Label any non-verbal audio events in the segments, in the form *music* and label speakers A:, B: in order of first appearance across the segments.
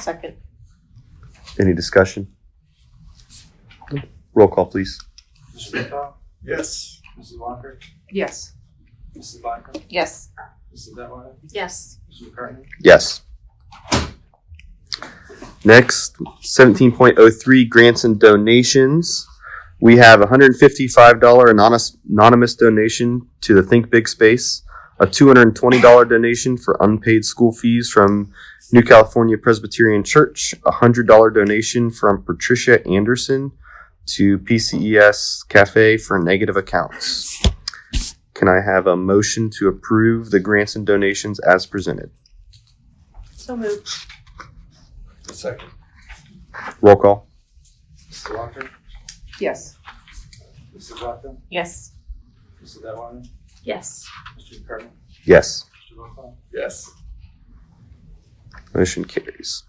A: second.
B: Any discussion? Roll call, please.
C: Mr. Murtaugh,
D: Yes.
C: Mrs. Walker,
A: Yes.
C: Mrs. Blackman,
A: Yes.
C: Mrs. Detwiler,
A: Yes.
C: Mr. McCartney,
B: Yes. Next, seventeen point oh three grants and donations. We have a hundred and fifty-five dollar anonymous, anonymous donation to the Think Big Space, a two hundred and twenty dollar donation for unpaid school fees from New California Presbyterian Church, a hundred dollar donation from Patricia Anderson to PCES Cafe for negative accounts. Can I have a motion to approve the grants and donations as presented?
A: So moved.
D: Second.
B: Roll call.
C: Mrs. Walker,
A: Yes.
C: Mrs. Blackman,
A: Yes.
C: Mrs. Detwiler,
A: Yes.
C: Mr. McCartney,
B: Yes.
C: Mr. Murtaugh,
D: Yes.
B: Motion carries.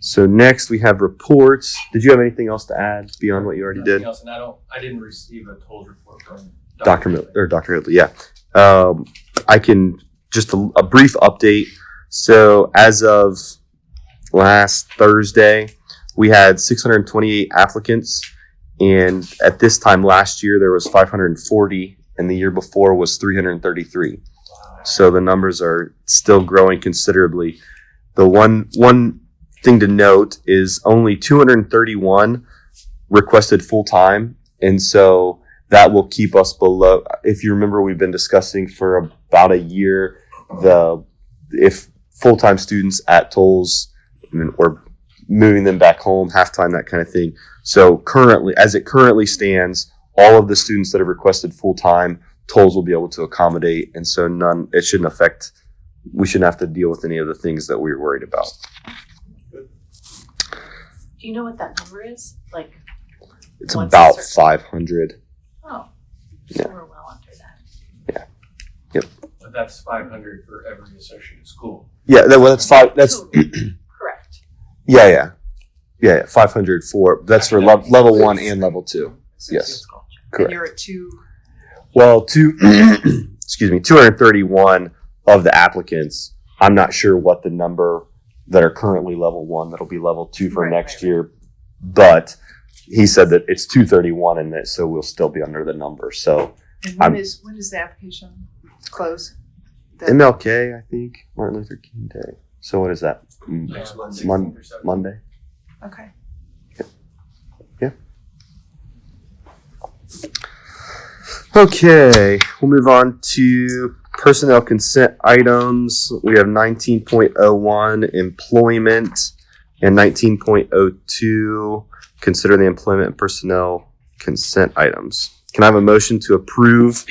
B: So next we have reports. Did you have anything else to add beyond what you already
E: Nothing
B: did?
E: else, and I don't, I didn't receive a told report from.
B: Dr. Miller, or Dr. Ridley, yeah. Um, I can, just a, a brief update. So as of last Thursday, we had 628 applicants. And at this time last year, there was 540 and the year before was 333. So the numbers are still growing considerably. The one, one thing to note is only 231 requested full-time. And so that will keep us below. If you remember, we've been discussing for about a year the if full time students at tolls I mean, or moving them back home, half time, that kind of thing. So currently, as it currently stands, all of the students that have requested full time tolls will be able to accommodate, and so none. It shouldn't affect. We shouldn't have to deal with any of the things that we were worried about.
A: Do you know what that number is? Like,
B: It's
A: Once
B: about
A: it's certain.
B: five hundred.
A: oh, so
B: Yeah.
A: we're well under that.
E: But that's five hundred for every associated school.
B: Yeah, that, well, that's five. That's *clears throat*
A: Total. Correct.
B: Yeah, yeah, yeah. yeah. Five hundred for that's for lev- level one
A: Please.
B: and level two. Yes.
A: And
B: Correct.
A: you're at two,
B: Well, two. *clears throat* excuse me, two hundred thirty-one of the applicants. I'm not sure what the number that are currently level one that'll be level two for
A: Right,
B: next
A: right,
B: year, but he said that it's two thirty-one and that so we'll still be under the number. So
F: And
B: I'm-
F: when is, when is the application close? The-
B: MLK, I think Martin Luther King Day. So what is that? Mm,
E: Next Monday.
B: Mon-
E: 16th or 17th.
B: Monday.
F: Okay.
B: Okay, we'll move on to personnel consent items. We have nineteen point oh one employment and nineteen point oh two consider the employment and personnel consent items. Can I have a motion to approve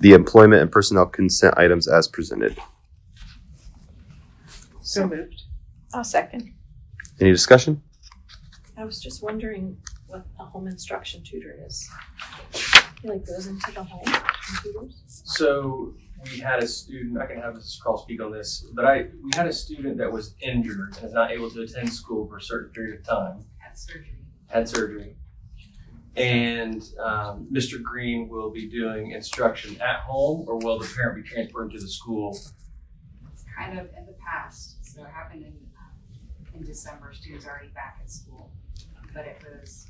B: the employment and personnel consent items as presented?
F: So moved.
A: oh, second.
B: Any discussion?
A: I was just wondering what a home instruction tutor is. He like goes into the home and tutors?
E: So we had a student, I can have Mrs. Carl speak on this, but I, we had a student that was injured and is not able to attend school for a certain period of time. Had surgery. And um, Mr. Green will be doing instruction at home, or will the parent be transferred to the school?
G: kind of in the past, so it happened in, um, in December, students already back at school. But it was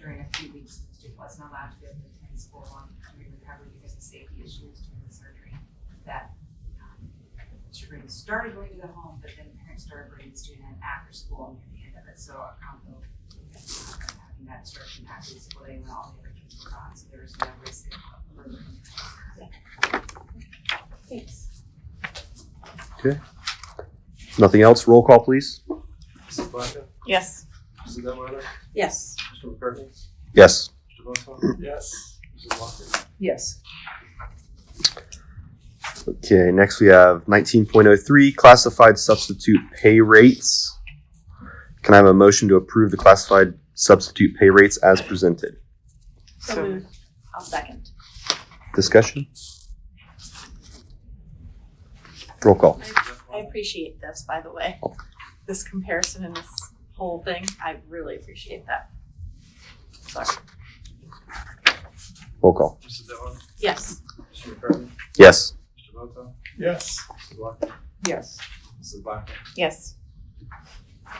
G: during a few weeks, the student wasn't allowed to be able to attend school on during recovery because of safety issues during the surgery. That, um, children started going to the home, but then parents started bringing the student in after school and near the end of it, so a combo. of Having that instruction after the school day when all the other kids were gone, so there was no risk of further.
A: Thanks.
B: Nothing else? Roll call, please.
C: Mrs. Blackman,
A: Yes.
C: Mrs. Detwiler,
A: Yes.
C: Mr. McCartney,
B: Yes.
C: Mr.
B: Mm.
C: Murtaugh,
D: Yes.
C: Mrs. Walker,
F: Yes.
B: Okay, next we have nineteen point oh three classified substitute pay rates. Can I have a motion to approve the classified substitute pay rates as presented?
A: So moved. I'll second.
B: Discussion? Roll call.
A: I appreciate this, by the way. This comparison and this whole thing, I really appreciate that. Sorry.
B: Roll call.
C: Mrs. Detwiler,
A: Yes.
C: Mr. McCartney,
B: Yes.
C: Mr. Murtaugh,
D: Yes.
C: Mrs. Walker,
F: Yes.
C: Mrs. Blackman,
A: Yes.